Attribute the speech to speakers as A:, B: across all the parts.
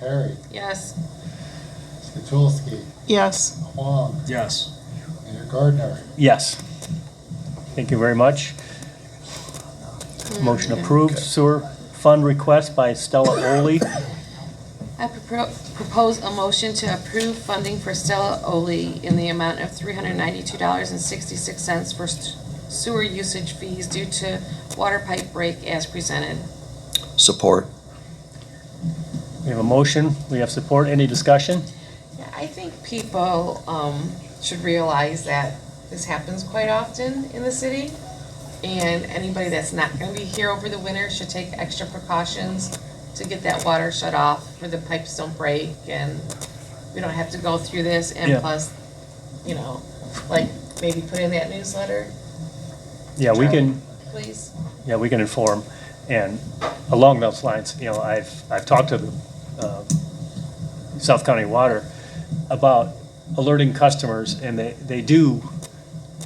A: Harry,
B: Yes.
A: Skatulski,
C: Yes.
A: Huang,
D: Yes.
A: Mayor Gardner.
D: Yes. Thank you very much. Motion approved. Sewer fund request by Stella Oley.
B: I propo- propose a motion to approve funding for Stella Oley in the amount of three hundred ninety-two dollars and sixty-six cents for s- sewer usage fees due to water pipe break as presented.
E: Support.
D: We have a motion. We have support. Any discussion?
B: Yeah, I think people um, should realize that this happens quite often in the city. And anybody that's not gonna be here over the winter should take extra precautions to get that water shut off where the pipes don't break and we don't have to go through this. And
D: Yeah.
B: plus, you know, like maybe put in that newsletter,
D: Yeah, we can,
B: please.
D: yeah, we can inform. And along those lines, you know, I've, I've talked to uh, South County Water about alerting customers, and they, they do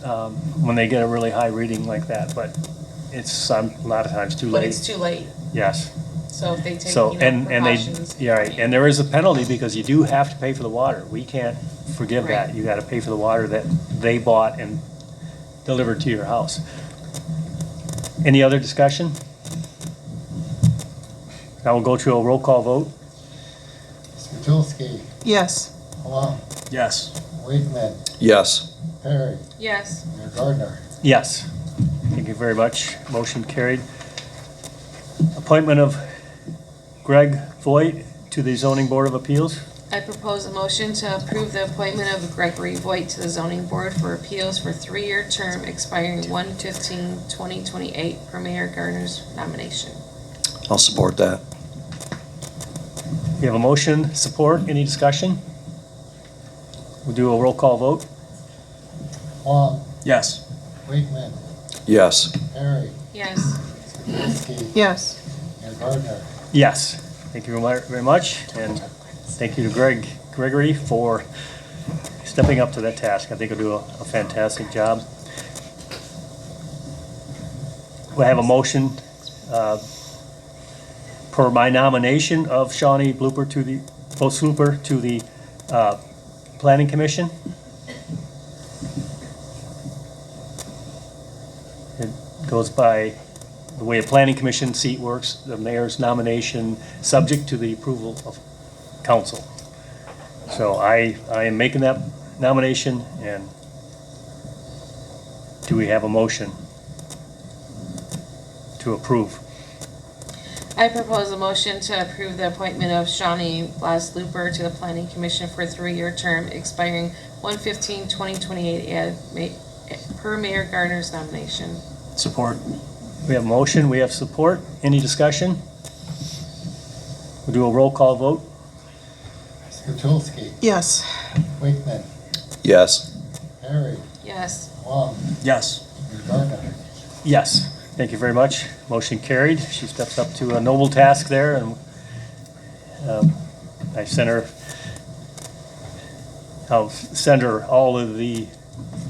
D: um, when they get a really high reading like that, but it's some- a lot of times too
B: But it's
D: late.
B: too late,
D: Yes.
B: so if they take,
D: So,
B: you know,
D: and, and they,
B: precautions.
D: yeah, right, and there is a penalty because you do have to pay for the water. We can't forgive that.
B: Right.
D: You gotta pay for the water that they bought and delivered to your house. Any other discussion? Now we'll go to a roll call vote.
A: Skatulski,
C: Yes.
A: Huang,
D: Yes.
A: Wakeman,
E: Yes.
A: Harry,
B: Yes,
A: Mayor Gardner.
D: Yes. Thank you very much. Motion carried. Appointment of Greg Voight to the zoning board of appeals.
B: I propose a motion to approve the appointment of Gregory Voight to the zoning board for appeals for three-year term expiring 2028 per Mayor Gardner's nomination.
E: I'll support that.
D: We have a motion, support, any discussion? We'll do a roll call vote.
A: Huang,
D: Yes.
A: Wakeman,
E: Yes.
A: Harry,
B: Yes.
A: Skatulski,
C: Yes.
A: Mayor Gardner.
D: Yes, thank you very mu- very much, and thank you to Greg, Gregory for stepping up to that task. I think he'll do a a fantastic job. We have a motion, uh, per my nomination of Shawnee Blooper to the, Bo Blooper to the, uh, Planning Commission. It goes by the way a planning commission seat works, the mayor's nomination, subject to the approval of council. So I, I am making that nomination, and do we have a motion to approve?
B: I propose a motion to approve the appointment of Shawnee Blas Looper to the planning commission for a three-year term expiring 2028 as ma- per Mayor Gardner's nomination.
D: Support. We have motion, we have support. Any discussion? We'll do a roll call vote.
A: Skatulski,
C: Yes.
A: Wakeman,
E: Yes.
A: Harry,
B: Yes.
A: Huang,
D: Yes.
A: Mayor Gardner.
D: Yes, thank you very much. Motion carried. She steps up to a noble task there, and um, I sent her, I'll send her all of the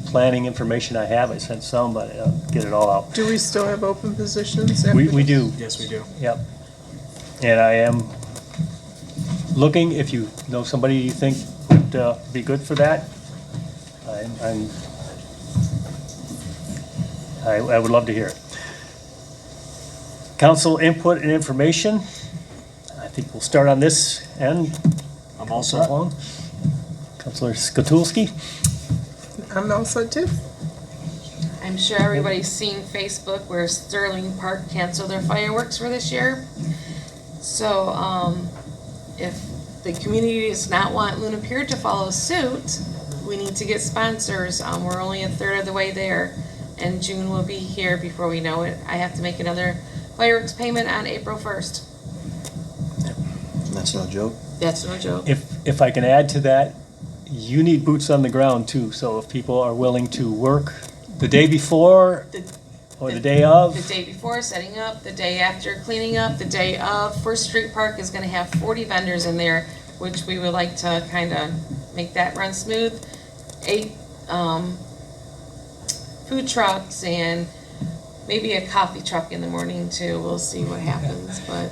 D: planning information I have. I sent some, but I'll get it all out.
C: Do we still have open positions? after
D: We, we
C: this?
D: do,
F: Yes, we do.
D: yep. And I am looking, if you know somebody you think would uh, be good for that, I'm- I'm, I, I would love to hear it. Council input and information. I think we'll start on this end.
F: I'm all
D: Counselor
F: set.
D: Long. Counselor Skatulski?
C: I'm also too.
B: I'm sure everybody's seen Facebook where Sterling Park canceled their fireworks for this year. So, um, if the community does not want Luna Pier to follow suit, we need to get sponsors. Um, we're only a third of the way there, and June will be here before we know it. I have to make another fireworks payment on April first.
E: That's no joke.
B: That's no joke.
D: If, if I can add to that, you need boots on the ground too, so if people are willing to work the day before
B: The-
D: or the day of,
B: The day before, setting up, the day after, cleaning up, the day of. First Street Park is gonna have forty vendors in there, which we would like to kind of make that run smooth. Eight, um, food trucks and maybe a coffee truck in the morning too. We'll see what happens, but